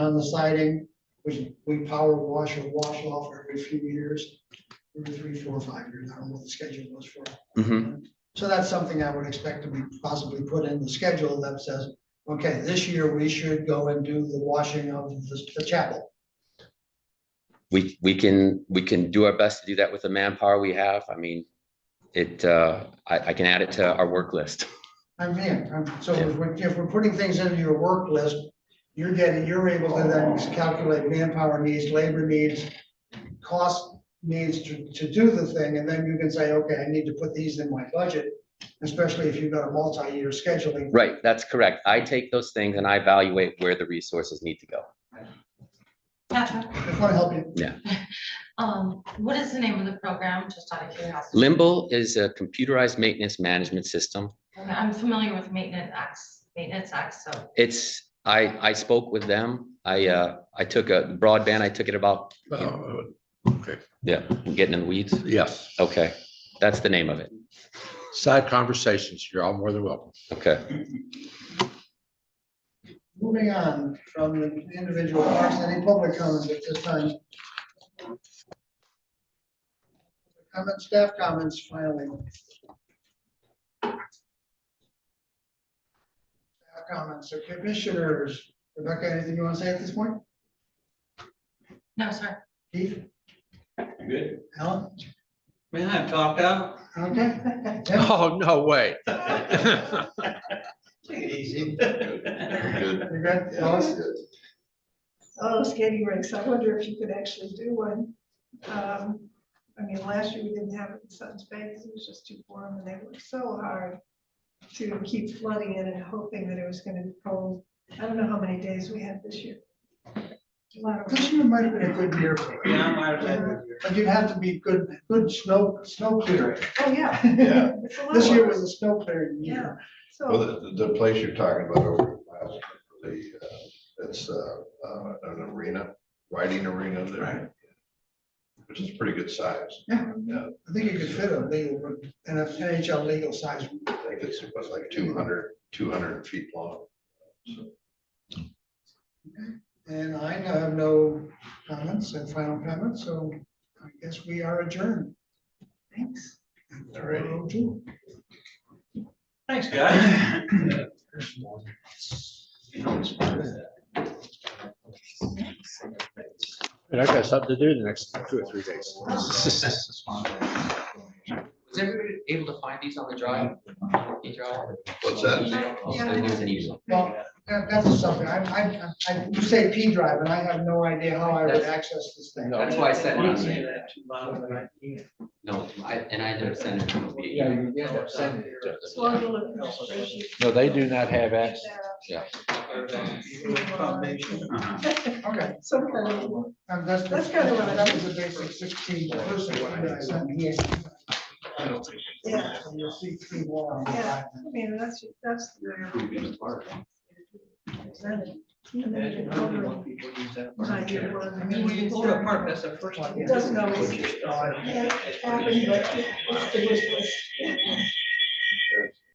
on the siding, which we power wash or wash off every few years. Every three, four, five years, I don't know what the schedule was for. Mhm. So that's something I would expect to be possibly put in the schedule that says, okay, this year we should go and do the washing of the the chapel. We, we can, we can do our best to do that with the manpower we have. I mean, it, uh, I, I can add it to our work list. I'm in, I'm- so if we're, if we're putting things into your work list, you're getting, you're able to then calculate manpower needs, labor needs, cost needs to, to do the thing, and then you can say, okay, I need to put these in my budget, especially if you've got a multi-year scheduling. Right, that's correct. I take those things and I evaluate where the resources need to go. Patrick, Just want to help you. um, what is the name of the program, just out of curiosity? Limbo is a computerized maintenance management system. Okay, I'm familiar with maintenance acts, maintenance acts, so, It's, I, I spoke with them. I, uh, I took a broadband, I took it about, Uh, yeah, I'm getting in the weeds. Yes, Okay, that's the name of it. side conversations, you're all more than welcome. Okay, Moving on from the individual parks, any public comments at this time? Comments, staff comments, finally. Staff Comments, or commissioners, Rebecca, anything you want to say at this point? no, sir. Keith, Good. Alan, Man, I'm talked out. okay? Tim? Oh, no way. Take it easy. You're good, Lois? Oh, skating rinks, I wonder if you could actually do one. Um, I mean, last year we didn't have it in Sutton's Bay because it was just too warm and they worked so hard to keep flooding it and hoping that it was gonna be cold. I don't know how many days we had this year. A lot of oh, This year might have been a good year for it, Yeah, I might have had it here. but you'd have to be good, good snow, snow clearing. Oh, yeah. Yeah. It's a lot This of year work. was a snow clearing year. Yeah, Well, so, the, the place you're talking about over at Glasgow, the, uh, it's, uh, uh, an arena, riding arena there. Which is pretty good size. I think you could fit a legal, an NHL legal size. I think it's, it was like 200 200 feet long. And I have no comments and final comments, so I guess we are adjourned. thanks. All right. Thanks, guys. And I got something to do the next two or three days. Was everybody able to find these on the drive? What's that? Well, that- that's something, I, I, I, you say P drive, and I have no idea how I would access this thing. That's why I said it on there. Yeah, No, I, and I never sent it to the meeting. you end up sending it. So I'll go look at the spreadsheet. No, they do not have access. Yeah. Foundation. Okay, Some kind of. and that's. That's kinda what I- That was the basic sixteen person one that I sent here. Yeah. So You'll see three more on the Yeah, drive. I mean, that's, that's. uh, the My year one. We hold a park, that's the first. Uh, It doesn't always happen, but it's the wish list.